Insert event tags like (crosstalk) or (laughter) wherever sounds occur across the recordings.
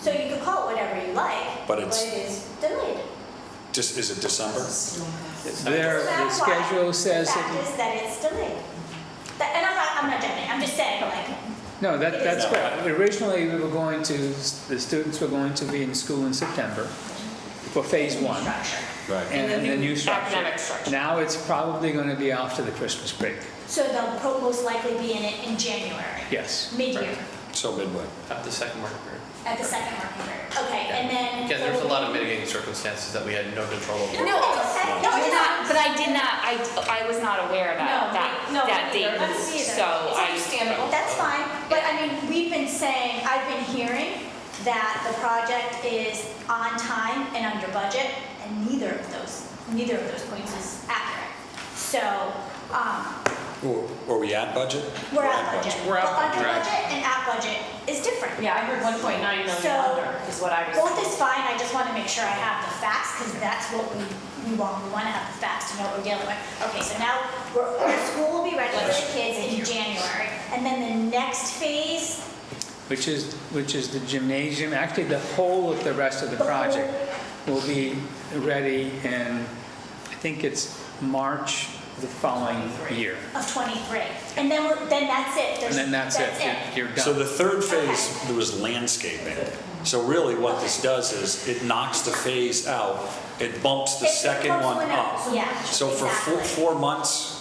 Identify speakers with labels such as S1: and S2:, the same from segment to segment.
S1: So you can call it whatever you like, but
S2: But it's-
S1: it is delayed.
S2: Just, is it December?
S3: There, the
S1: That's why
S3: schedule says,
S1: The
S3: that-
S1: fact is that it's delayed. That- And I'm not, I'm not judging, I'm just saying, like,
S3: no, that, that's
S2: No.
S3: correct. Originally, we were going to, the students were going to be in school in September for phase one.
S1: structure.
S2: Right.
S3: And the new structure.
S4: Academic structure.
S3: Now it's probably going to be after the Christmas break,
S1: So they'll pro- most likely be in it in January,
S3: yes.
S1: mid-year,
S2: So midway.
S5: At the second market period.
S1: at the second working group. Okay, and then.
S5: Again, there's a lot of mitigating circumstances that we had no control over.
S1: No, okay.
S4: No, it's not, but I did not, I, I was not aware
S1: No,
S4: that,
S1: me- no,
S4: that, that
S1: me
S4: date
S1: neither.
S4: was,
S1: Me neither.
S4: so
S1: It's
S4: I.
S1: understandable. That's fine, but I mean, we've been saying, I've been hearing that the project is on time and under budget, and neither of those, neither of those points is accurate. So, um,
S2: Were were we at budget?
S1: we're at budget.
S5: We're at
S1: But under
S5: budget.
S1: budget and at budget is different.
S4: Yeah, I heard one point nine
S1: So-
S4: million under is what I was.
S1: Both is fine, I just want to make sure I have the facts, because that's what we, we want, we want to have the facts to know what we're dealing with. Okay, so now, we're, our school will be ready for the kids in January, and then the next phase,
S3: Which is, which is the gymnasium, actually the whole of the rest of the
S1: The whole-
S3: project will be ready in, I think it's March the following year.
S1: of twenty-three. And then we're, then that's it,
S3: And
S1: there's,
S3: then that's it, You're- you're
S2: So
S3: done.
S2: the third phase, there was landscaping. So really what this does is it knocks the phase out, it bumps the
S1: It
S2: second
S1: bumps
S2: one
S1: one up,
S2: up.
S1: yeah,
S2: So for four,
S1: exactly.
S2: four months,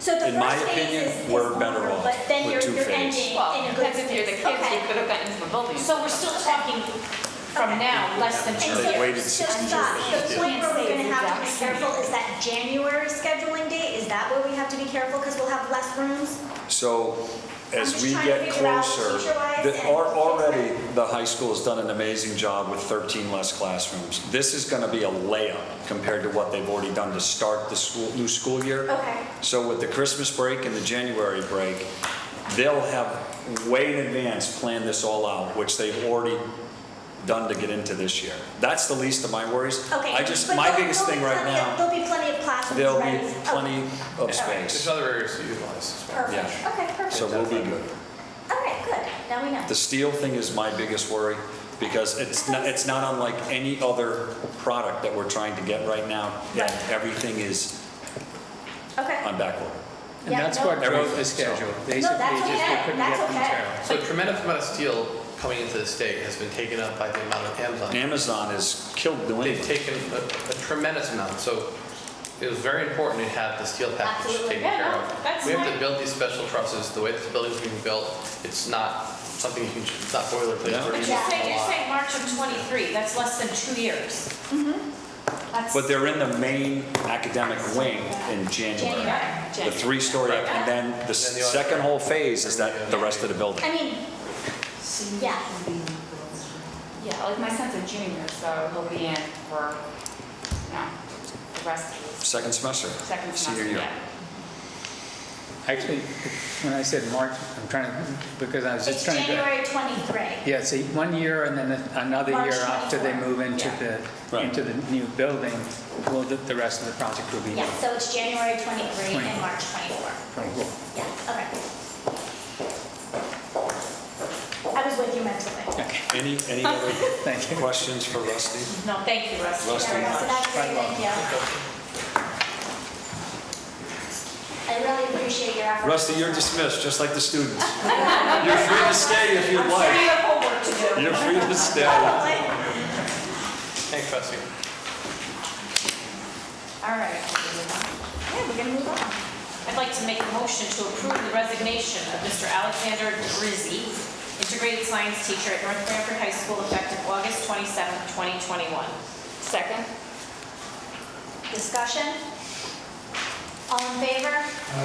S1: So the
S2: in my
S1: first
S2: opinion,
S1: phase is, is
S2: we're better
S1: longer,
S2: off
S1: but then
S2: with
S1: you're,
S2: two
S1: you're
S2: phases.
S1: ending in
S4: Well,
S1: a good
S4: because
S1: space.
S4: if you're the kids, you
S1: Okay.
S4: could have gotten into the building.
S6: So we're still talking from now, less than two
S1: And
S2: They
S1: so-
S2: waited
S1: so
S2: 60 years
S1: stop.
S2: to
S1: The
S2: do
S1: point where we're gonna have to be
S6: Exactly.
S1: careful is that January scheduling date, is that where we have to be careful, because we'll have less rooms?
S2: so as
S1: just
S2: we
S1: trying to
S2: get
S1: figure out
S2: closer,
S1: teacher-wise
S2: the-
S1: and-
S2: al- already, the high school has done an amazing job with 13 less classrooms. This is going to be a layup compared to what they've already done to start the school, new school year.
S1: Okay.
S2: So with the Christmas break and the January break, they'll have way in advance planned this all out, which they've already done to get into this year. That's the least of my worries.
S1: Okay.
S2: I just,
S1: but
S2: my
S1: there'll-
S2: biggest
S1: there'll
S2: thing
S1: be
S2: right
S1: plenty of-
S2: now,
S1: There'll be plenty of classrooms
S2: there'll
S1: ready.
S2: be plenty of
S5: There's
S2: space.
S5: other areas to utilize as
S1: Okay,
S5: well.
S1: Perfect,
S2: yeah.
S1: okay, perfect.
S2: So we'll be good.
S1: All right, good, now we know.
S2: The steel thing is my biggest worry because it's not, it's not unlike any other product that we're trying to get right now. And
S1: Right.
S2: everything is
S1: Okay.
S2: on backorder.
S3: And
S1: Yeah,
S3: that's
S1: no-
S3: what drove
S2: Everything,
S3: the
S2: so-
S3: schedule. Basically,
S1: that's
S3: just
S1: okay,
S3: they couldn't
S1: that's
S3: get the
S1: okay.
S3: material.
S5: So a tremendous amount of steel coming into the state has been taken up by the amount of Amazon.
S2: Amazon has killed New
S5: They've
S2: England.
S5: taken a a tremendous amount, so it was very important to have the steel package
S6: Absolutely.
S5: taken
S6: Yeah,
S5: care
S6: no,
S5: of.
S6: that's
S5: We have to
S6: fine.
S5: build these special trusses, the way this building's being built, it's not something you can, ju- it's not boilerplate.
S2: Yeah.
S5: We're
S6: But
S5: using
S6: you're
S5: a
S6: saying, you're
S5: lot.
S6: saying March of twenty-three, that's less than two years. That's.
S2: But they're in the main academic wing in January.
S1: January.
S2: The three-story,
S5: Right.
S2: and then the
S5: Then the-
S2: second whole phase is that, the rest of the building.
S1: I mean, yeah,
S4: Yeah, like my son's a junior, so he'll be in for, no, the rest of his
S2: Second semester.
S4: second semester.
S2: Senior year.
S4: yeah.
S3: Actually, when I said March, I'm trying to, because I was
S1: it's
S3: just trying to.
S1: January twenty-three.
S3: Yeah, see, one year and then another
S1: March
S3: year after they
S1: 24.
S3: move into
S4: Yeah.
S3: the,
S2: Right.
S3: into the new building, well, the, the rest of the project will be
S1: Yeah, so it's January twenty-three and
S3: 24.
S1: March twenty-four.
S3: twenty-four.
S1: Yeah, okay. I was with you mentally.
S2: Any, any other
S3: Thank you.
S2: questions for Rusty?
S6: No, thank you, Rusty.
S2: Rusty.
S1: All right, So that's great, thank you. I really appreciate your effort.
S2: Rusty, you're
S1: (laughs)
S2: dismissed, just like the students. You're free to stay if you'd
S6: I'm sure you
S2: like.
S6: have homework to do.
S2: You're free to
S1: Oh,
S2: stay.
S5: Thanks, Rusty.
S6: All right. Yeah, we're gonna move on. I'd like to make a motion to approve the resignation of Mr. Alexander Brizzi, integrated science teacher at North Branford High School effective August 27, 2021.
S4: Second?
S1: Discussion? All in favor?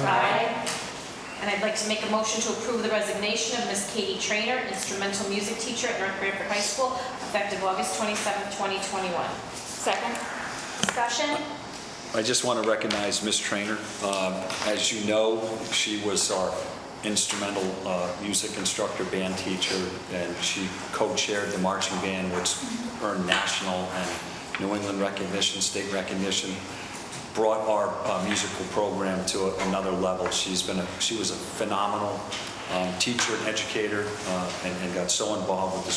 S6: Aye. And I'd like to make a motion to approve the resignation of Miss Katie Trainer, instrumental music teacher at North Branford High School effective August 27, 2021.
S4: Second?
S1: Discussion?
S2: I just want to recognize Miss Trainer. Um, As you know, she was our instrumental uh, music instructor, band teacher, and she co-chaired the marching band, which earned national and New England recognition, state recognition, brought our uh, musical program to a- another level. She's been, a she was a phenomenal um, teacher and educator, uh, and and got so involved with the